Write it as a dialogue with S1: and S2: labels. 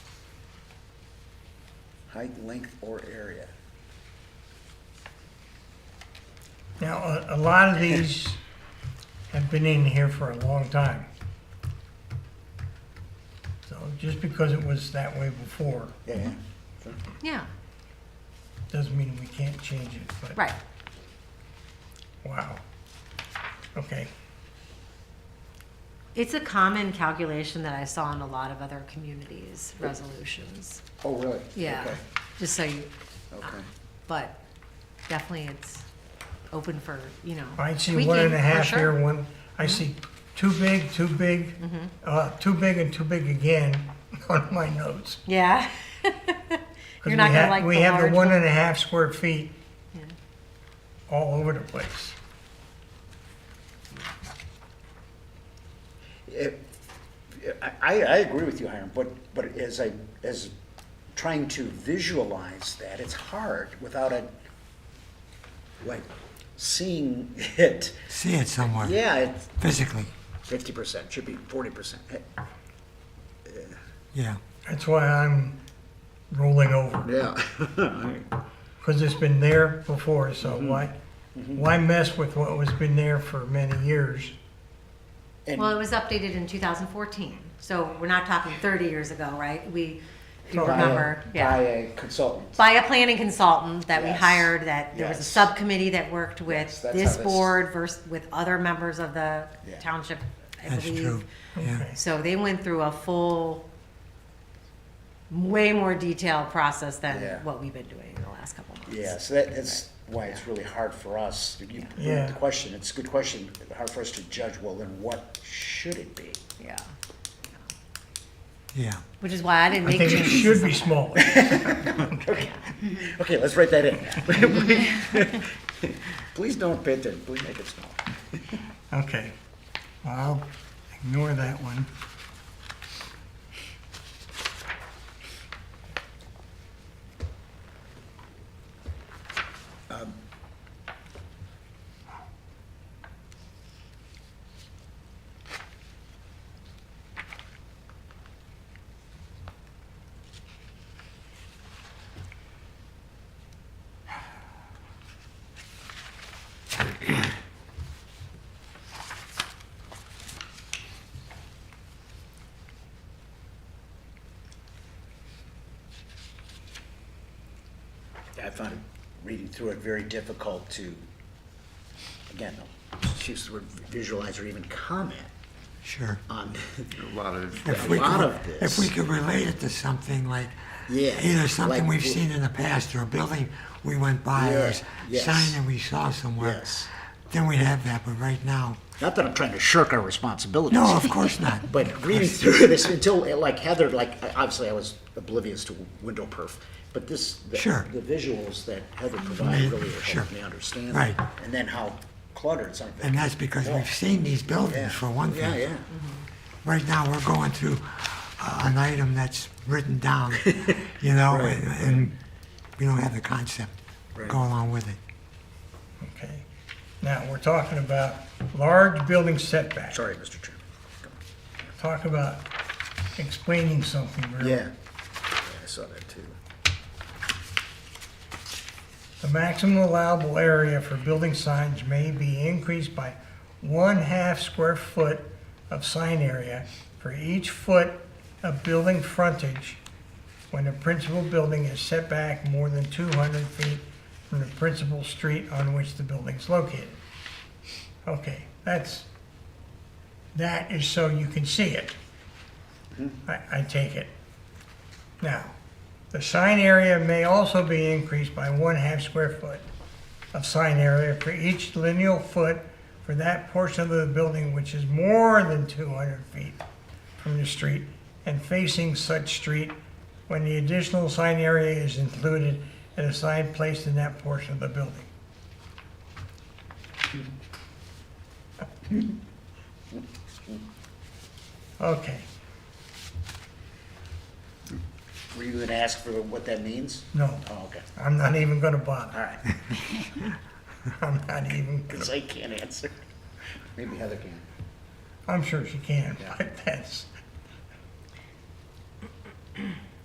S1: height, length, or area.
S2: Now, a, a lot of these have been in here for a long time. So just because it was that way before,
S1: Yeah, yeah.
S3: Yeah,
S2: doesn't mean we can't change it, but.
S3: right.
S2: Wow. Okay,
S3: It's a common calculation that I saw in a lot of other communities' resolutions.
S1: Oh, really?
S3: Yeah, Uh-huh.
S1: Okay,
S3: just so you,
S1: Okay,
S3: but definitely it's open for, you know.
S2: I see one and a
S3: tweaking, for
S2: half
S3: sure. Mm-hmm.
S2: here, one, I see too big, too big, uh, too big and too big again on my notes.
S3: Yeah.
S2: 'Cause
S3: You're not
S2: we
S3: gonna
S2: ha-
S3: like the
S2: We have
S3: large
S2: the one
S3: one.
S2: and a half square feet
S3: Yeah.
S2: all over the place.
S1: It- I, I I agree with you, Hiram, but, but as I, as trying to visualize that, it's hard without a, like, seeing it.
S4: See it somewhere
S1: Yeah, it's
S4: physically.
S1: fifty percent, should be forty percent.
S4: Yeah.
S2: That's why I'm rolling over,
S1: Yeah.
S2: because it's been there before, so why, why mess with what was been there for many years?
S3: Well, it
S1: And,
S3: was updated in 2014, so we're not talking 30 years ago, right? We, if you
S2: Right.
S3: remember,
S1: by
S3: yeah.
S1: a consultant.
S3: By a planning consultant that we
S1: Yes.
S3: hired, that there was a
S1: Yes.
S3: subcommittee that worked
S1: Yes,
S3: with
S1: that's how
S3: this
S1: this-
S3: board versus with other members of the
S1: Yeah.
S3: township, I
S4: That's true.
S3: believe.
S4: Yeah.
S2: Okay.
S3: So they went through a full, way more detailed process
S1: Yeah.
S3: than what we've been doing in the last couple months.
S1: Yeah, so that, that's why it's really hard for us, You- you,
S2: Yeah.
S1: the question, it's a good question, hard for us to judge, well, then what should it be?
S3: Yeah,
S4: Yeah.
S3: which is why I
S2: I
S3: didn't make
S2: think
S3: changes.
S2: it should
S3: to
S2: be
S3: some-
S2: smaller.
S1: Okay, let's write that in. Please don't pit it, please make it small.
S2: Okay, well, I'll ignore that one.
S1: I found it, reading through it, very difficult to, again, choose the word visualize or even comment
S4: Sure.
S1: on
S5: A lot of,
S4: If
S1: a
S4: we
S1: lot
S4: could-
S1: of
S4: If we
S1: this.
S4: could relate it to something like
S1: Yeah,
S4: either something
S1: like
S4: we've
S1: w-
S4: seen in the past or a building we went by or a s-
S1: Yeah, yes.
S4: sign that we saw somewhere,
S1: Yes.
S4: then we'd have that. But right now,
S1: Not that I'm trying to shirk our responsibilities.
S4: no, of course not.
S1: But reading through this until, uh, like Heather, like, I- obviously I was oblivious to window perf, but this, the
S4: Sure.
S1: the visuals that Heather provided really
S4: Sure.
S1: helped me understand.
S4: Right.
S1: that. And then how cluttered something.
S4: And that's because
S1: Yeah.
S4: we've seen these
S1: Yeah.
S4: buildings for one
S1: Yeah,
S4: thing.
S1: yeah.
S4: Right now, we're going through uh, an item that's written down, you know,
S1: Right.
S4: and, and we don't have the concept
S1: Right.
S4: go along with it.
S2: Okay, now, we're talking about large building setbacks.
S1: Sorry, Mr. Chairman.
S2: Talk about explaining something, really.
S1: Yeah. I saw that too.
S2: The maximum allowable area for building signs may be increased by one-half square foot of sign area for each foot of building frontage when the principal building is set back more than two hundred feet from the principal street on which the building is located. Okay, that's, that is so you can see it. I, I take it. Now, the sign area may also be increased by one half square foot of sign area for each lineal foot for that portion of the building which is more than two hundred feet from the street and facing such street when the additional sign area is included and a sign placed in that portion of the building. Okay,
S1: Were you gonna ask for what that means?
S2: no,
S1: Oh, okay.
S2: I'm not even gonna bother.
S1: All right.
S2: I'm not even,
S1: Because I can't answer. Maybe Heather can.
S2: I'm sure she can,
S1: Yeah.
S2: but that's,